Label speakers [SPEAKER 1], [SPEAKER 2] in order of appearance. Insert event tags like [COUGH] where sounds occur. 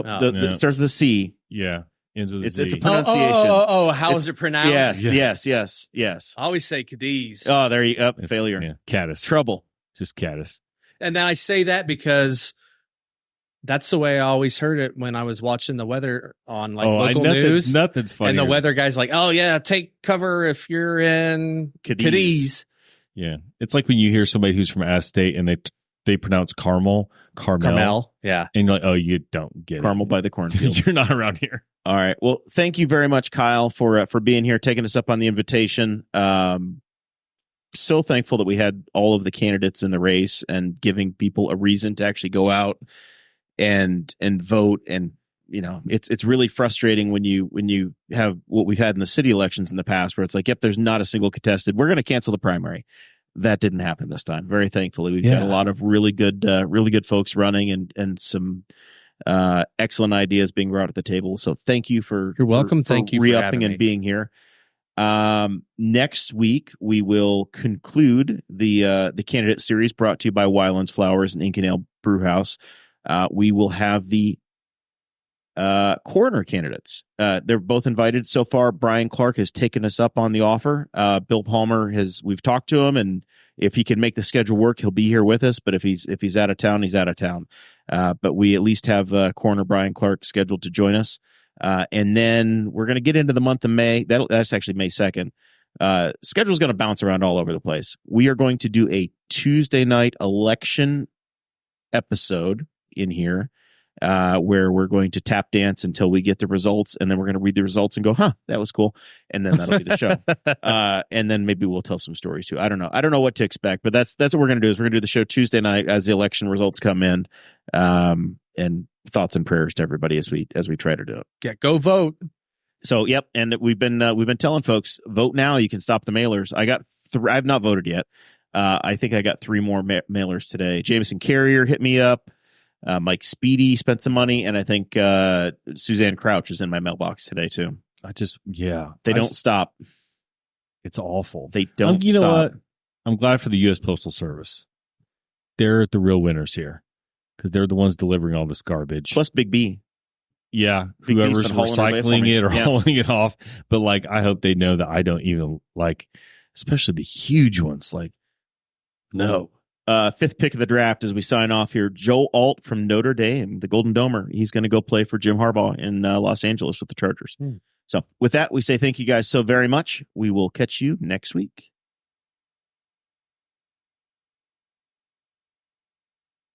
[SPEAKER 1] Oh,
[SPEAKER 2] the, the-
[SPEAKER 3] yeah.
[SPEAKER 2] it starts with a C.
[SPEAKER 3] Yeah. Into the
[SPEAKER 2] It's-
[SPEAKER 3] Z.
[SPEAKER 2] it's a pun-
[SPEAKER 1] oh, oh,
[SPEAKER 2] Pronunciation.
[SPEAKER 1] oh, oh, how is it pronounced?
[SPEAKER 2] Yes,
[SPEAKER 3] Yeah. Oh,
[SPEAKER 2] yes, yes, yes.
[SPEAKER 1] I always say Cadiz.
[SPEAKER 2] Oh, there you up
[SPEAKER 3] It's-
[SPEAKER 2] failure.
[SPEAKER 3] Yeah. Caddis.
[SPEAKER 2] Trouble.
[SPEAKER 3] Just caddis.
[SPEAKER 1] And then I say that because that's the way I always heard it when I was watching the weather on like
[SPEAKER 3] oh, I,
[SPEAKER 1] local
[SPEAKER 3] nothing's,
[SPEAKER 1] news.
[SPEAKER 3] Nothing's funny.
[SPEAKER 1] and the weather guy's like, "Oh yeah, take cover if you're in
[SPEAKER 2] Cadiz.
[SPEAKER 1] Cadiz."
[SPEAKER 3] Yeah. It's like when you hear somebody who's from out of state and they they pronounce Carmel, Carmel,
[SPEAKER 1] Carmel. Yeah.
[SPEAKER 3] and you're like, oh, you don't get [LAUGHS]
[SPEAKER 2] Caramel by the cornfield.
[SPEAKER 3] it. you're not around here.
[SPEAKER 2] All right. Well, thank you very much, Kyle, for uh, for being here, taking us up on the invitation. Um, so thankful that we had all of the candidates in the race and giving people a reason to actually go out and and vote. And you know, it's it's really frustrating when you when you have what we've had in the city elections in the past, where it's like, yep, there's not a single contested. We're going to cancel the primary. That didn't happen this time. Very thankfully, we've got
[SPEAKER 3] Yeah.
[SPEAKER 2] a lot of really good, uh, really good folks running, and and some uh, excellent ideas being brought at the table. So thank you for
[SPEAKER 1] You're welcome.
[SPEAKER 2] for-
[SPEAKER 1] Thank
[SPEAKER 2] for
[SPEAKER 1] you for
[SPEAKER 2] re-upping
[SPEAKER 1] having
[SPEAKER 2] and
[SPEAKER 1] me.
[SPEAKER 2] being here. Um, next week we will conclude the uh, the candidate series brought to you by Wylands Flowers and Inconel Brewhouse. Uh, we will have the uh, coroner candidates. Uh, they're both invited so far. Brian Clark has taken us up on the offer. Uh, Bill Palmer has. We've talked to him, and if he can make the schedule work, he'll be here with us. But if he's if he's out of town, he's out of town. Uh, but we at least have uh, coroner Brian Clark scheduled to join us. Uh, and then we're going to get into the month of May. That'll, that's actually May 2nd. Uh, schedule's going to bounce around all over the place. We are going to do a Tuesday night election episode in here uh, where we're going to tap dance until we get the results. And then we're going to read the results and go, huh, that was cool. And then that'll be the
[SPEAKER 1] [LAUGHS]
[SPEAKER 2] show. uh, and then maybe we'll tell some stories too. I don't know. I don't know what to expect, but that's, that's what we're going to do is we're going to do the show Tuesday night as the election results come in. Um, and thoughts and prayers to everybody as we, as we try to do it.
[SPEAKER 1] Yeah. Go vote.
[SPEAKER 2] So yep, and we've been uh, we've been telling folks vote now. You can stop the mailers. I got thr I've not voted yet. Uh, I think I got three more ma- mailers today. Jameson Carrier hit me up. Uh, Mike Speedy spent some money, and I think uh, Suzanne Crouch is in my mailbox today too.
[SPEAKER 3] I just, yeah.
[SPEAKER 2] They
[SPEAKER 3] I
[SPEAKER 2] don't
[SPEAKER 3] s-
[SPEAKER 2] stop.
[SPEAKER 3] it's awful.
[SPEAKER 2] They don't.
[SPEAKER 3] Um, you
[SPEAKER 2] stop.
[SPEAKER 3] know what? I'm glad for the U.S. Postal Service. They're the real winners here because they're the ones delivering all this garbage.
[SPEAKER 2] Plus Big B.
[SPEAKER 3] yeah,
[SPEAKER 2] Big B's
[SPEAKER 3] whoever's
[SPEAKER 2] been hauling it away for
[SPEAKER 3] recycling
[SPEAKER 2] me.
[SPEAKER 3] it or
[SPEAKER 2] Yeah.
[SPEAKER 3] hauling it off. But like, I hope they know that I don't even like, especially the huge ones. Like, no,
[SPEAKER 2] Uh, fifth pick of the draft as we sign off here. Joe Alt from Notre Dame, the Golden Domer. He's going to go play for Jim Harbaugh in uh, Los Angeles with the Chargers.
[SPEAKER 1] Hmm.
[SPEAKER 2] So, with that, we say thank you guys so very much. We will catch you next week.